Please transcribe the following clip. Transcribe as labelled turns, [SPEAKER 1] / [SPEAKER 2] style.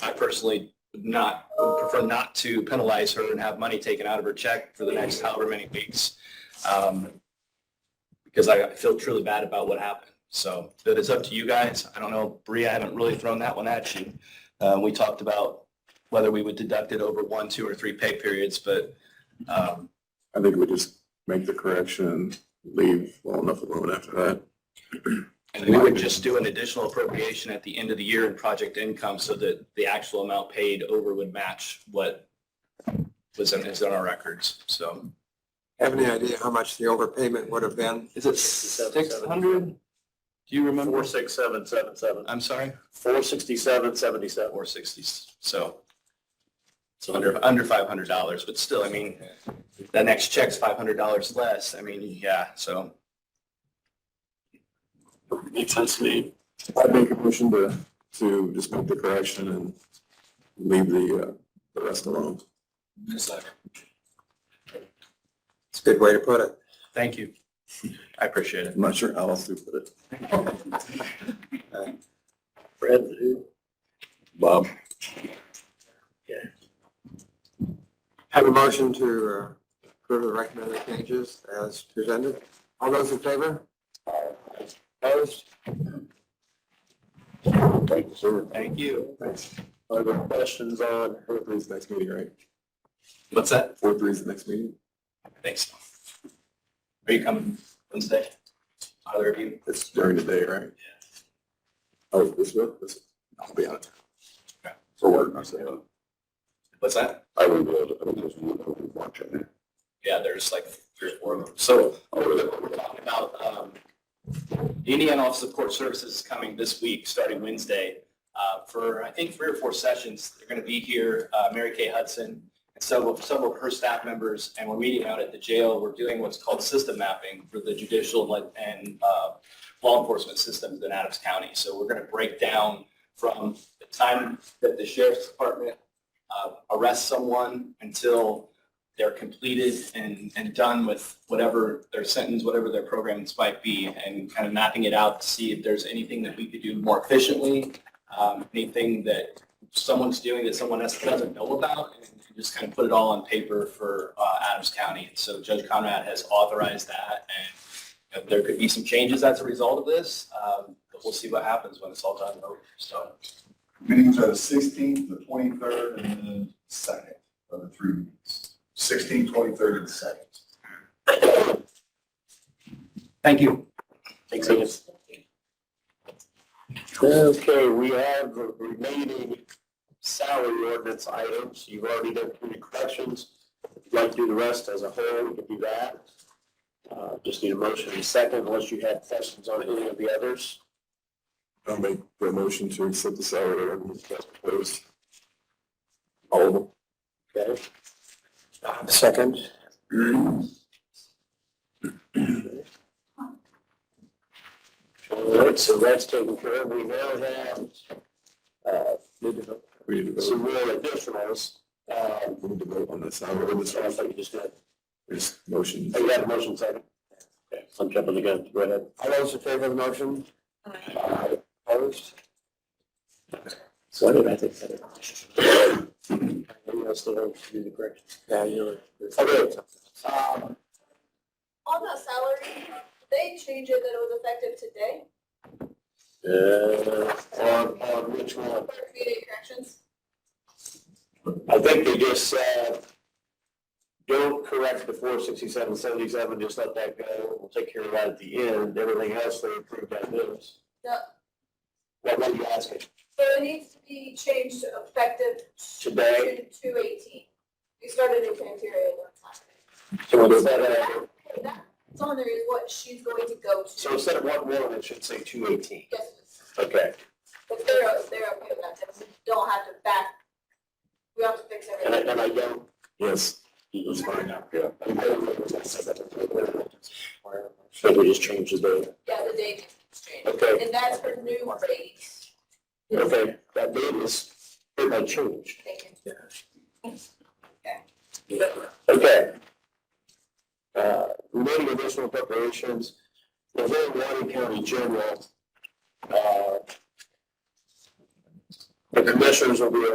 [SPEAKER 1] I personally would not, would prefer not to penalize her and have money taken out of her check for the next however many weeks. Um, Because I feel truly bad about what happened. So that is up to you guys. I don't know, Bree, I haven't really thrown that one at you. Uh, We talked about whether we would deduct it over one, two, or three pay periods, but um,
[SPEAKER 2] I think we just make the correction, leave well enough alone after that.
[SPEAKER 1] And we would just do an additional appropriation at the end of the year in project income so that the actual amount paid over would match what was in, is in our records, so.
[SPEAKER 3] Have any idea how much the overpayment would have been?
[SPEAKER 1] Is it six hundred? Do you remember?
[SPEAKER 4] Four, six, seven, seven, seven.
[SPEAKER 1] I'm sorry,
[SPEAKER 4] Four sixty-seven, seventy-seven.
[SPEAKER 1] four sixties, so. So under, under five hundred dollars, but still, I mean, that next check's five hundred dollars less, I mean, yeah, so.
[SPEAKER 4] Makes sense to me.
[SPEAKER 2] I'd make a motion to, to just make the correction and leave the, uh, the rest alone.
[SPEAKER 3] It's a good way to put it.
[SPEAKER 1] Thank you. I appreciate it.
[SPEAKER 2] I'm not sure how else to put it.
[SPEAKER 4] Fred,
[SPEAKER 2] Bob?
[SPEAKER 3] Have a motion to uh, approve the recommended changes as presented. All those in favor? Opposed?
[SPEAKER 2] Thank you, sir.
[SPEAKER 1] Thank you.
[SPEAKER 2] Thanks.
[SPEAKER 4] are there questions on,
[SPEAKER 2] Four three's next meeting, right?
[SPEAKER 1] What's that?
[SPEAKER 2] Four three's the next meeting?
[SPEAKER 1] Thanks. Are you coming Wednesday? Either of you?
[SPEAKER 2] It's during the day, right? Oh, this one, this, I'll be on it.
[SPEAKER 1] Okay.
[SPEAKER 2] For work, I'm saying.
[SPEAKER 1] What's that?
[SPEAKER 2] I would, uh, I would watch it.
[SPEAKER 1] Yeah, there's like three or four of them. So we're we're talking about, um, the Indiana Office of Court Services is coming this week, starting Wednesday, uh, for, I think, three or four sessions. They're going to be here, uh, Mary Kay Hudson and several, several of her staff members, and we're meeting out at the jail. We're doing what's called system mapping for the judicial and- and, uh, law enforcement systems in Adams County. So we're going to break down from the time that the sheriff's department, uh, arrests someone until they're completed and, and done with whatever their sentence, whatever their programs might be, and kind of mapping it out to see if there's anything that we could do more efficiently, um, anything that someone's doing that someone else doesn't know about, and just kind of put it all on paper for uh, Adams County. And so Judge Conrad has authorized that, and you know, there could be some changes as a result of this, um, but we'll see what happens when it's all done and over, so.
[SPEAKER 5] Meetings are the sixteenth, the twenty-third, and the second of the three meetings. Sixteenth, twenty-third, and second.
[SPEAKER 1] Thank you.
[SPEAKER 4] makes sense? Okay, we have the remaining salary ordinance items. You've already done three corrections. If you'd like to do the rest as a whole, we can do that. Uh, just need a motion in a second unless you have questions on any of the others.
[SPEAKER 2] I'll make the motion to accept the salary ordinance as proposed. All of them.
[SPEAKER 4] Okay. Uh, Second. All right, so that's taken care of. We now have, uh, need to
[SPEAKER 2] We need to
[SPEAKER 4] vote.
[SPEAKER 2] vote.
[SPEAKER 4] some more additionals. Um,
[SPEAKER 2] We need to vote on the salary ordinance.
[SPEAKER 4] so I thought you just got,
[SPEAKER 2] There's motion.
[SPEAKER 4] oh, you had a motion second. Okay, so I'm jumping the gun. Go ahead.
[SPEAKER 3] All those in favor of the motion?
[SPEAKER 4] Uh,
[SPEAKER 3] Opposed?
[SPEAKER 4] So I did, I think. that- Anyone else that wants to do the correction?
[SPEAKER 3] Yeah, you're.
[SPEAKER 4] Okay. Um,
[SPEAKER 6] On that salary, they changed it that it was effective today
[SPEAKER 4] Uh, on, on which one?
[SPEAKER 6] for community corrections.
[SPEAKER 4] I think they just said, don't correct the four sixty-seven, seventy-seven, just let that go. We'll take care of that at the end. Everything else they approved that is.
[SPEAKER 6] No,
[SPEAKER 4] What were you asking?
[SPEAKER 6] so it needs to be changed to effective.
[SPEAKER 4] Today?
[SPEAKER 6] To eighteen. We started in criteria one time.
[SPEAKER 4] So instead of,
[SPEAKER 6] That's on there is what she's going to go
[SPEAKER 4] uh,
[SPEAKER 6] to.
[SPEAKER 4] so instead of one one, it should say two eighteen.
[SPEAKER 6] Yes,
[SPEAKER 4] Okay.
[SPEAKER 6] But they're, they're okay with that, then we don't have to back, we don't have to fix
[SPEAKER 4] And I,
[SPEAKER 6] everything.
[SPEAKER 4] and I don't.
[SPEAKER 2] Yes.
[SPEAKER 4] It's fine now. Yeah. So we just changed the
[SPEAKER 6] Yeah, the date is
[SPEAKER 4] date.
[SPEAKER 6] changed.
[SPEAKER 4] Okay,
[SPEAKER 6] And that's for new rates.
[SPEAKER 4] okay. That date is, it might change.
[SPEAKER 6] Thank you.
[SPEAKER 4] Okay. Uh, Remaining additional preparations, the whole Water County General. uh, The commissioners will be